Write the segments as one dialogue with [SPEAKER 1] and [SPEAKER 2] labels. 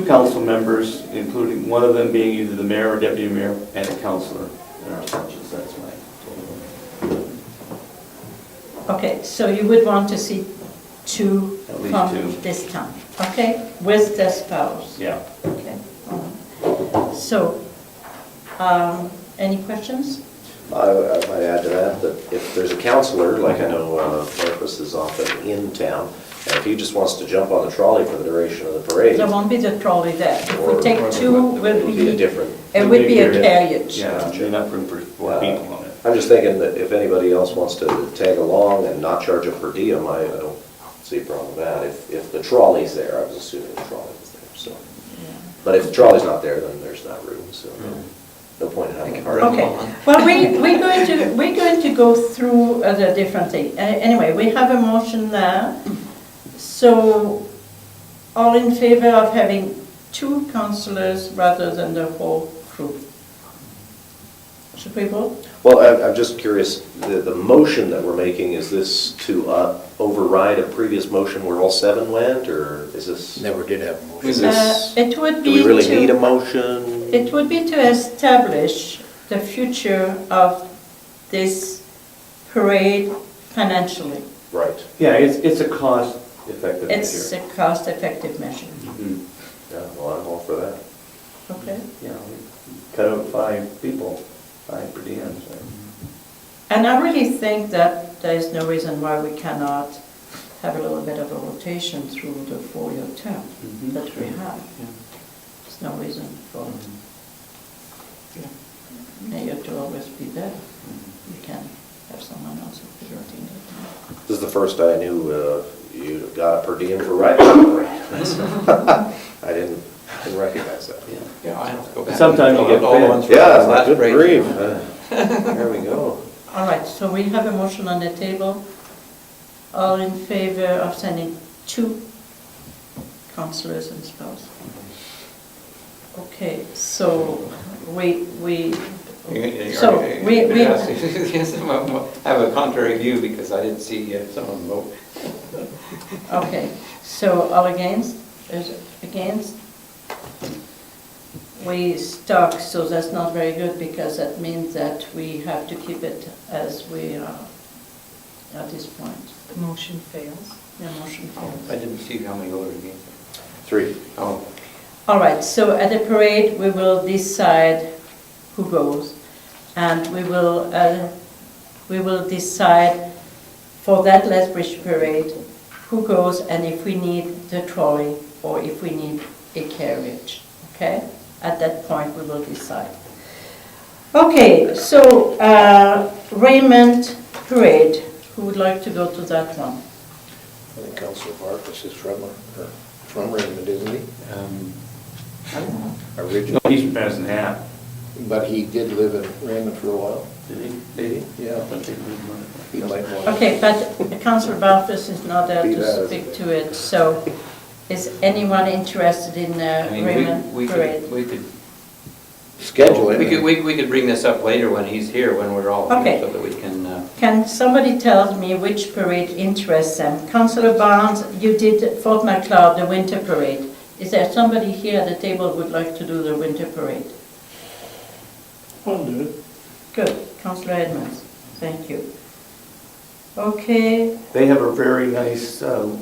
[SPEAKER 1] two council members, including one of them being either the mayor or deputy mayor and a councilor in our budgets, that's my
[SPEAKER 2] Okay, so you would want to see two
[SPEAKER 1] At least two.
[SPEAKER 2] from this town, okay? With the spouse,
[SPEAKER 1] Yeah.
[SPEAKER 2] okay? So, um, any questions?
[SPEAKER 3] I I might add to that, that if there's a counselor, like I know uh, Marcus is often in town, and if he just wants to jump on the trolley for the duration of the parade,
[SPEAKER 2] There won't be the trolley there. If
[SPEAKER 3] Or-
[SPEAKER 2] we take
[SPEAKER 3] or
[SPEAKER 2] two,
[SPEAKER 3] it
[SPEAKER 2] we'll
[SPEAKER 3] would be
[SPEAKER 2] be,
[SPEAKER 3] a different,
[SPEAKER 2] it would be a carriage.
[SPEAKER 1] Yeah, you're not room for four people on it.
[SPEAKER 3] I'm just thinking that if anybody else wants to tag along and not charge a per diem, I I don't see a problem with that. If, if the trolley's there, I was assuming the trolley was there, so. But if the trolley's not there, then there's not room, so no point in having a party.
[SPEAKER 2] Okay, well, we, we're going to, we're going to go through uh, the different thing. Uh, Anyway, we have a motion there. So, all in favor of having two councillors rather than the whole crew? Should we vote?
[SPEAKER 3] Well, I'm, I'm just curious, the, the motion that we're making, is this to uh, override a previous motion where all seven went, or is this?
[SPEAKER 4] Never did have a motion.
[SPEAKER 3] Is
[SPEAKER 2] Uh,
[SPEAKER 3] this, do
[SPEAKER 2] It would be
[SPEAKER 3] we
[SPEAKER 2] to...
[SPEAKER 3] really need a motion?
[SPEAKER 2] It would be to establish the future of this parade financially.
[SPEAKER 3] Right.
[SPEAKER 1] Yeah, it's, it's a cost effective
[SPEAKER 2] It's a
[SPEAKER 1] measure.
[SPEAKER 2] cost-effective measure,
[SPEAKER 1] Mhm.
[SPEAKER 3] Yeah, well, I'm all for that.
[SPEAKER 2] okay?
[SPEAKER 1] Yeah, we cut out five people, five per diem, so.
[SPEAKER 2] And I really think that there is no reason why we cannot have a little bit of a rotation through the four-year term
[SPEAKER 1] Mhm.
[SPEAKER 2] that we have.
[SPEAKER 1] Yeah.
[SPEAKER 2] There's no reason for mayor to always be there. You can have someone else if you're doing it.
[SPEAKER 3] This is the first I knew uh, you got a per diem for riding the parade. I didn't, didn't recognize that.
[SPEAKER 1] Yeah.
[SPEAKER 5] Yeah, I have to go back.
[SPEAKER 1] Sometimes you
[SPEAKER 5] and fill
[SPEAKER 1] get
[SPEAKER 5] out all the
[SPEAKER 1] fed.
[SPEAKER 5] ones for the
[SPEAKER 3] Yeah,
[SPEAKER 5] last
[SPEAKER 3] good
[SPEAKER 5] race.
[SPEAKER 3] grief. Uh, There we go.
[SPEAKER 2] All right, so we have a motion on the table. All in favor of sending two councillors and spouse? Okay, so we, we,
[SPEAKER 5] You- you-
[SPEAKER 2] so
[SPEAKER 5] you-
[SPEAKER 2] we, we,
[SPEAKER 5] yes, yes, I'm- I'm- I have a contrary view because I didn't see uh, someone vote.
[SPEAKER 2] okay, so all against, is it against? We stuck, so that's not very good because that means that we have to keep it as we are at this point.
[SPEAKER 6] The motion fails.
[SPEAKER 2] The motion fails.
[SPEAKER 5] I didn't see how many voted against.
[SPEAKER 3] Three.
[SPEAKER 5] Oh,
[SPEAKER 2] All right, so at the parade, we will decide who goes, and we will, uh, we will decide for that Lethbridge parade, who goes and if we need the trolley or if we need a carriage, okay? At that point, we will decide. Okay, so uh, Raymond Parade, who would like to go to that one?
[SPEAKER 4] I think Councilor Marcus is from, uh, from Raymond, isn't he?
[SPEAKER 5] um, I don't know.
[SPEAKER 4] Originally,
[SPEAKER 1] No, he's from Madison Hat.
[SPEAKER 4] but he did live in Raymond for a while.
[SPEAKER 1] Did he, did he?
[SPEAKER 4] Yeah.
[SPEAKER 1] I thought they moved on.
[SPEAKER 4] He might want to.
[SPEAKER 2] Okay, but Councillor Barfus is not there
[SPEAKER 4] Be
[SPEAKER 2] to
[SPEAKER 4] there.
[SPEAKER 2] speak to it, so is anyone interested in uh,
[SPEAKER 5] I mean, we- we
[SPEAKER 2] Raymond
[SPEAKER 5] could-
[SPEAKER 2] Parade?
[SPEAKER 5] We could.
[SPEAKER 4] Schedule
[SPEAKER 5] Oh, We could,
[SPEAKER 4] him.
[SPEAKER 5] we we could bring this up later when he's here, when we're all
[SPEAKER 2] Okay.
[SPEAKER 5] here, so that we can, uh,
[SPEAKER 2] Can somebody tell me which parade interests them? Councillor Barnes, you did Fort MacLeod, the winter parade. Is there somebody here at the table who would like to do the winter parade?
[SPEAKER 7] I'll do it.
[SPEAKER 2] Good, Councillor Edmonds, thank you. Okay,
[SPEAKER 1] They have a very nice uh,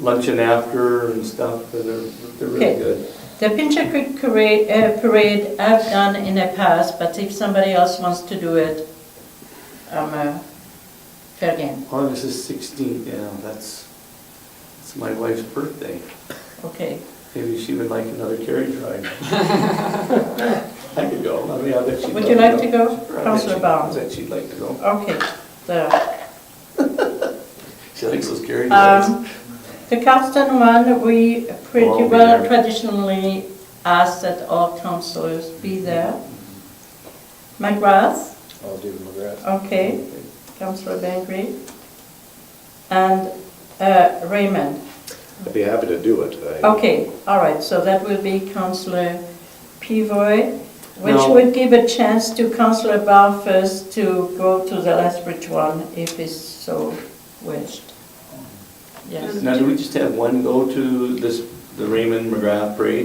[SPEAKER 1] luncheon after and stuff, but they're, they're really
[SPEAKER 2] Okay.
[SPEAKER 1] good.
[SPEAKER 2] The Pincher Creek Parade, uh, parade I've done in the past, but if somebody else wants to do it, I'm uh, fair game.
[SPEAKER 1] August is sixteenth, yeah, that's, it's my wife's birthday.
[SPEAKER 2] Okay,
[SPEAKER 1] Maybe she would like another carriage ride. I could go, I mean, I bet she'd.
[SPEAKER 2] Would you like to go, Councilor Barnes?
[SPEAKER 1] I bet she'd like to go.
[SPEAKER 2] okay. The,
[SPEAKER 1] She likes those carriage rides.
[SPEAKER 2] um, the Carlton one, we
[SPEAKER 1] I'll
[SPEAKER 2] pretty
[SPEAKER 1] be
[SPEAKER 2] well
[SPEAKER 1] there.
[SPEAKER 2] traditionally ask that all councillors be there. McGrath?
[SPEAKER 4] I'll do McGrath.
[SPEAKER 2] Okay, Councillor Bangry. And uh, Raymond?
[SPEAKER 3] I'd be happy to do it. I-
[SPEAKER 2] Okay, all right, so that will be Councillor Pivoy, which
[SPEAKER 1] No.
[SPEAKER 2] would give a chance to Councillor Barfus to go to the Lethbridge one if he's so wished. Yes,
[SPEAKER 1] Now, do we just have one go to this the Raymond McGrath parades.